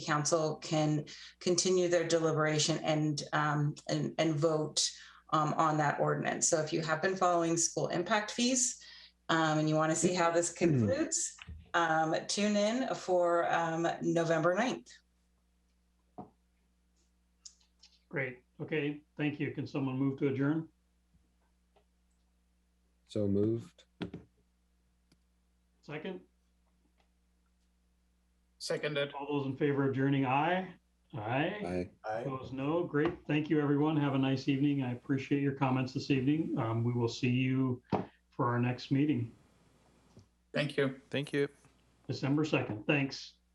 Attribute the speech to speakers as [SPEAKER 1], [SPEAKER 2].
[SPEAKER 1] council can continue their deliberation and, um, and, and vote um, on that ordinance. So if you have been following school impact fees, um, and you want to see how this concludes, um, tune in for, um, November 9th.
[SPEAKER 2] Great. Okay, thank you. Can someone move to adjourn?
[SPEAKER 3] So moved.
[SPEAKER 2] Second,
[SPEAKER 4] Seconded.
[SPEAKER 2] all those in favor of adjourning, aye? Aye.
[SPEAKER 3] Aye.
[SPEAKER 2] Opposed, no. Great. Thank you, everyone. Have a nice evening. I appreciate your comments this evening. Um, we will see you for our next meeting,
[SPEAKER 4] Thank you.
[SPEAKER 5] Thank you.
[SPEAKER 2] December 2nd. Thanks.